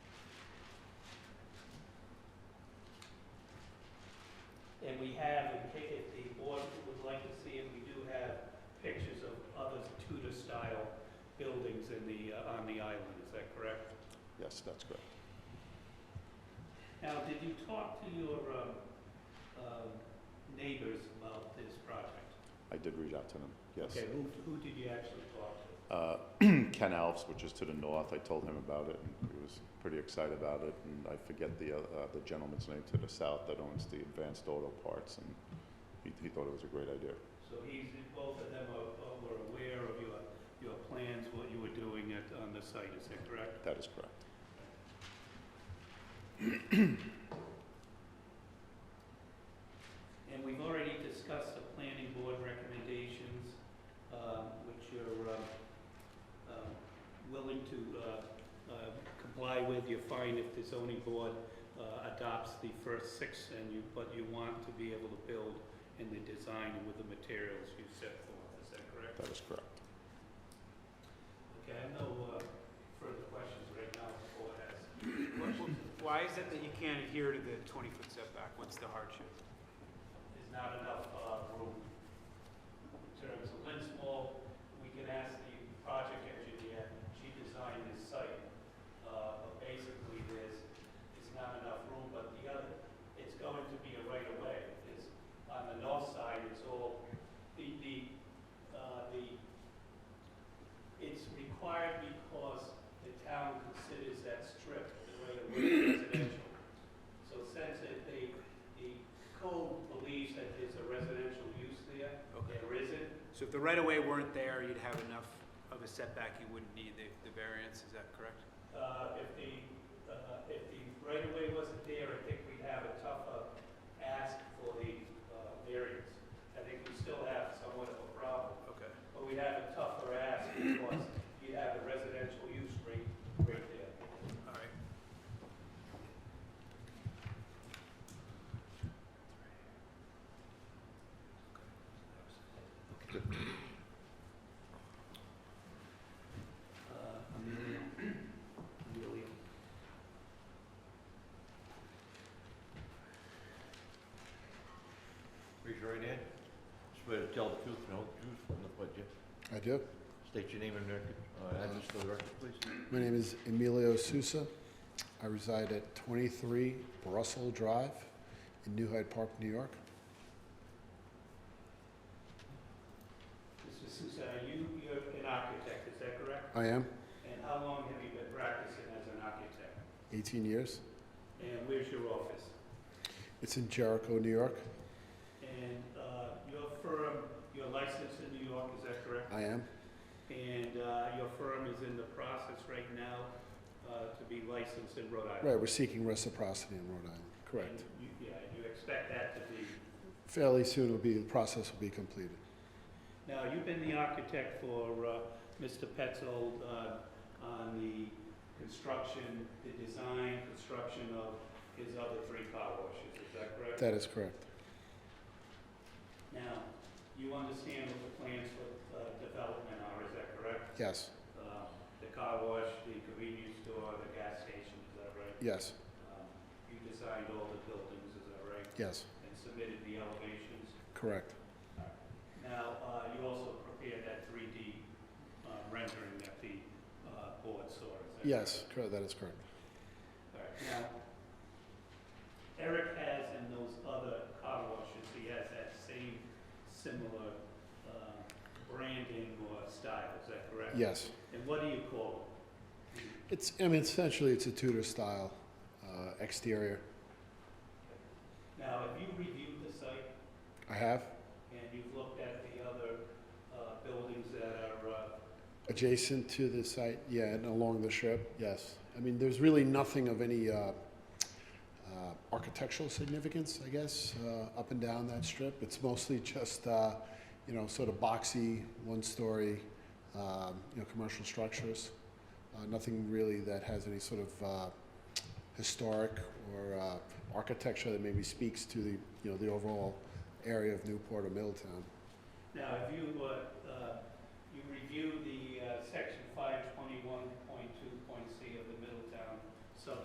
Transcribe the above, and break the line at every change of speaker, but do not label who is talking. buildings in the, uh, on the island, is that correct?
Yes, that's correct.
Now, did you talk to your um, uh, neighbors about this project?
I did reach out to them, yes.
Okay, who, who did you actually talk to?
Uh, Ken Alves, which is to the north, I told him about it, and he was pretty excited about it. And I forget the, uh, uh, the gentleman's name to the south that owns the Advanced Auto Parts, and he, he thought it was a great idea.
So he's, both of them are- are- were aware of your, your plans, what you were doing at, on the site, is that correct?
That is correct.
And we've already discussed the planning board recommendations, um, which you're um, um, willing to uh, uh, comply with. You're fine if the zoning board uh, adopts the first six, and you, but you want to be able to build in the design and with the materials you set forth, is that correct?
That is correct.
Okay, I have no uh, further questions right now before I ask.
Why is it that you can't adhere to the 20-foot setback? What's the hardship?
There's not enough uh, room in terms of lens wall. We can ask the project engineer, she designed this site, uh, but basically there's, it's not enough room, but the other, it's going to be a right of way. It's, on the north side, it's all, the, the, uh, the, it's required because the town considers that strip the right of way residential. So since it, they, the code believes that there's a residential use there, there isn't.
So if the right-of-way weren't there, you'd have enough of a setback, you wouldn't need the, the variance, is that correct?
Uh, if the, uh, if the right of way wasn't there, I think we'd have a tougher ask for the, uh, variance. I think we still have somewhat of a problem,
Okay.
but we'd have a tougher ask because you have a residential use rate right there.
All right.
Uh, Emilio, Emilio.
Raise your right hand. Swear to tell the truth and the whole truth from the budget.
I do.
State your name and record, uh, address for the record, please.
My name is Emilio Sousa. I reside at 23 Russell Drive in New Hyde Park, New York.
Mr. Susan, you, you're an architect, is that correct?
I am
And how long have you been practicing as an architect?
18 years.
And where's your office?
It's in Jericho, New York.
And uh, your firm, your license in New York, is that correct?
I am.
And uh, your firm is in the process right now uh, to be licensed in Rhode Island?
Right, we're seeking reciprocity in Rhode Island.
And
Correct.
you- Yeah, you expect that to be,
Fairly soon will be the process will be completed.
now, you've been the architect for uh, Mr. Petzold uh, on the construction, the design, construction of his other three car washes, is that correct?
That is correct.
Now, you understand what the plans for uh, development are, is that correct?
Yes.
um, the car wash, the convenience store, the gas station, is that right?
Yes.
Um, You designed all the buildings, is that right?
Yes.
And submitted the elevations.
Correct.
Now, uh, you also prepared that 3D uh, rendering that the uh, board saw, is that
Yes. Correct. That is correct.
correct? All right. Now, Eric has in those other car washes, he has that same similar uh, branding or style, is that correct?
Yes.
And what do you call it?
It's. I mean, essentially, it's a Tudor style uh, exterior.
Now, have you reviewed the site?
I have
And you've looked at the other uh, buildings that are, uh,
Adjacent to the site, yeah, and along the strip, yes. I mean, there's really nothing of any uh, uh, architectural significance, I guess, uh, up and down that strip. It's mostly just, uh, you know, sort of boxy, one-story, um, you know, commercial structures. Uh, nothing really that has any sort of uh, historic or uh, architecture that maybe speaks to the, you know, the overall area of Newport or Middletown.
now, have you, uh, uh, you reviewed the uh, section